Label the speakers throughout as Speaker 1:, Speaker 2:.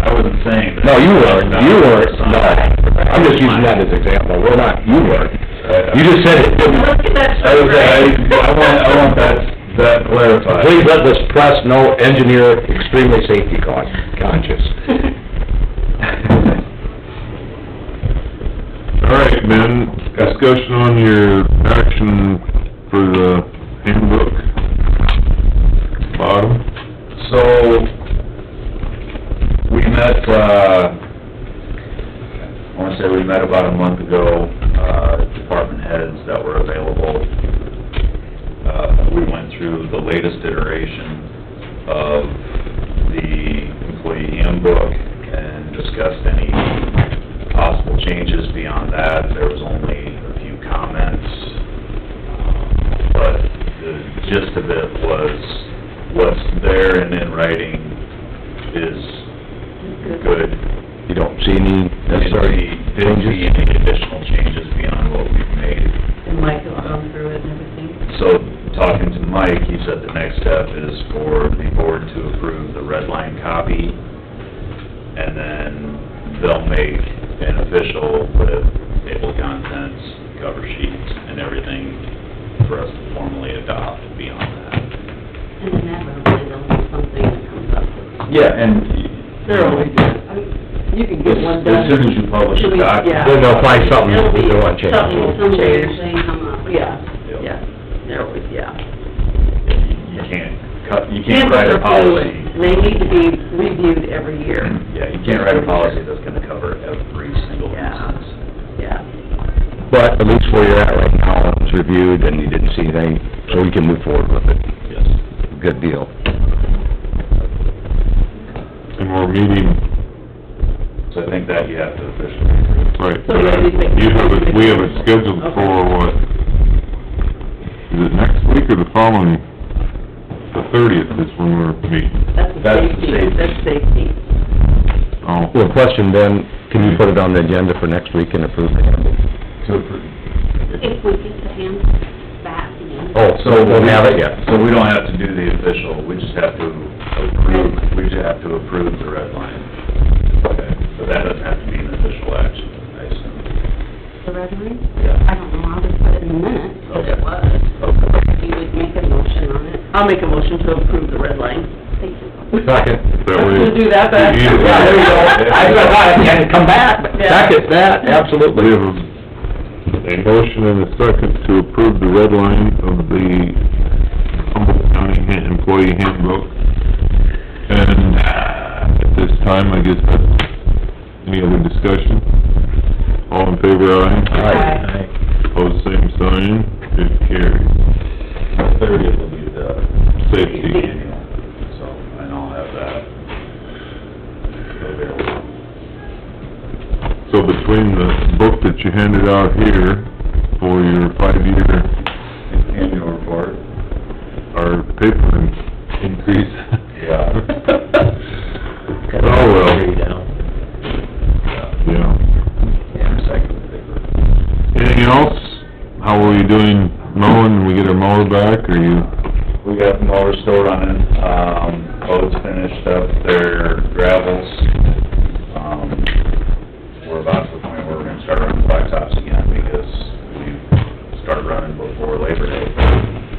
Speaker 1: saying. that-
Speaker 2: No, you weren't, you weren't, no, I'm just using that as an example, we're not, you weren't, you just said it.
Speaker 3: Look at that.
Speaker 1: I was, I, I want, I want that, that clarified.
Speaker 2: Please let this press know engineer extremely safety con- conscious.
Speaker 4: All right, Ben, discussion on your action for the handbook bottom.
Speaker 1: So, we met, uh, I wanna say we met about a month ago, uh, department heads that were available. Uh, we went through the latest iteration of the employee handbook and discussed any possible changes beyond that. There was only a few comments, but the gist of it was, what's there and in writing is good.
Speaker 2: You don't see any necessary
Speaker 1: Didn't see
Speaker 2: changes?
Speaker 1: any additional changes beyond what we've made.
Speaker 3: And Mike has gone through it and everything.
Speaker 1: So, talking to Mike, he said the next step is for the board to approve the red line copy, and then they'll make an official with table of contents, cover sheets, and everything for us to formally adopt beyond that.
Speaker 3: And then that would be the something that comes up with.
Speaker 1: Yeah, and.
Speaker 3: I mean, You can get one done.
Speaker 1: As soon as you publish
Speaker 3: Should
Speaker 1: the
Speaker 3: we- yeah.
Speaker 1: document.
Speaker 2: Then they'll find something
Speaker 3: It'll be
Speaker 2: we don't want changed.
Speaker 3: Something, some weird thing come up, yeah,
Speaker 1: Yep.
Speaker 3: yeah, there always, yeah.
Speaker 1: You can't cut, you can't write a policy.
Speaker 3: They need to be reviewed every year,
Speaker 1: Yeah, you can't write a policy that's gonna cover every single
Speaker 3: Yeah.
Speaker 1: instance.
Speaker 3: yeah.
Speaker 2: But at least where you're at right now, it's reviewed and you didn't see anything, so we can move forward with it,
Speaker 1: Yes.
Speaker 2: good deal.
Speaker 4: And we're meeting,
Speaker 1: So I think that you have to officially.
Speaker 4: right,
Speaker 3: So we already think-
Speaker 4: you have it, we have it scheduled
Speaker 3: Okay.
Speaker 4: for what? Is it next week or the following? The thirtieth is when we're meeting.
Speaker 3: That's the
Speaker 1: That's the
Speaker 3: safety,
Speaker 1: safety.
Speaker 3: that's safety.
Speaker 4: Oh,
Speaker 2: Well, question then, can
Speaker 1: Hmm.
Speaker 2: you put it on the agenda for next week and approve the handbook?
Speaker 1: To approve.
Speaker 5: If we get the hands back in.
Speaker 2: Oh, so we'll have it, yeah.
Speaker 1: So we don't have to do the official, we just have to approve, we just have to approve the red line. Okay. So that doesn't have to be an official action, I assume.
Speaker 5: The resume?
Speaker 1: Yeah.
Speaker 5: I don't know, I'll just put it in the minutes, what
Speaker 1: Okay.
Speaker 5: it was.
Speaker 1: Okay.
Speaker 5: You would make a motion on it.
Speaker 3: I'll make a motion to approve the red line.
Speaker 5: Thank you.
Speaker 2: Second.
Speaker 4: that way.
Speaker 3: We'll do that, but-
Speaker 4: You either-
Speaker 2: Yeah, there you go. I thought I had to come back, but
Speaker 3: Yeah.
Speaker 2: second that,
Speaker 4: We
Speaker 2: absolutely.
Speaker 4: have a a motion and a second to approve the red line of the Humboldt County Han- Employee Handbook. And uh, at this time, I guess, that's- any other discussion? All in favor, aye?
Speaker 3: Aye.
Speaker 4: Pose same sign, it carries.
Speaker 1: Thirtieth will be the
Speaker 4: Safety.
Speaker 1: annual, so, and I'll have that available.
Speaker 4: So between the book that you handed out here for your five-year,
Speaker 1: Annual report.
Speaker 4: our paper in- increase.
Speaker 1: Yeah.
Speaker 4: Oh, well, yeah.
Speaker 1: Yeah, recycling paper.
Speaker 4: Anything else? How are you doing mowing? We get our mower back, or you,
Speaker 1: We got the mower store running, um, boats finished up their gravels. Um, we're about to the point where we're gonna start running blacktops again because we started running before Labor Day.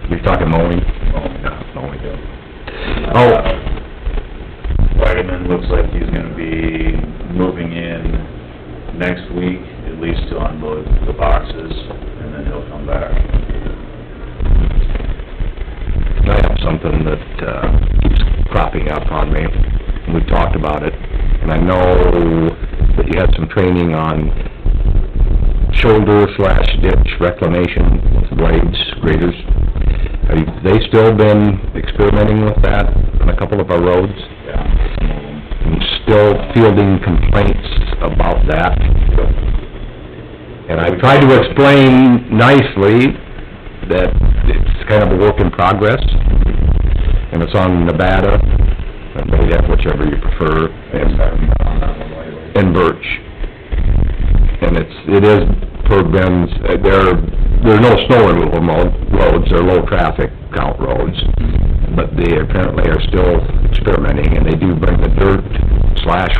Speaker 2: You're talking mowing?
Speaker 1: Oh, no, no, we don't.
Speaker 2: Oh.
Speaker 1: Whiteman Uh, looks like he's gonna be moving in next week, at least to unload the boxes, and then he'll come back.
Speaker 2: I have something that, uh, keeps cropping up on me, and we talked about it, and I know that you had some training on shoulder slash ditch reclamation blades, graders. Have they still been experimenting with that on a couple of our roads?
Speaker 1: Yeah, some of them.
Speaker 2: and still fielding complaints about that. And I tried to explain nicely that it's kind of a work in progress, and it's on Nevada, and Moab, whichever you prefer, and um, and birch. And it's, it is per Ben's, uh, there, there are no snow removal mo- roads, they're low traffic count roads. But they apparently are still experimenting and they do bring the dirt slash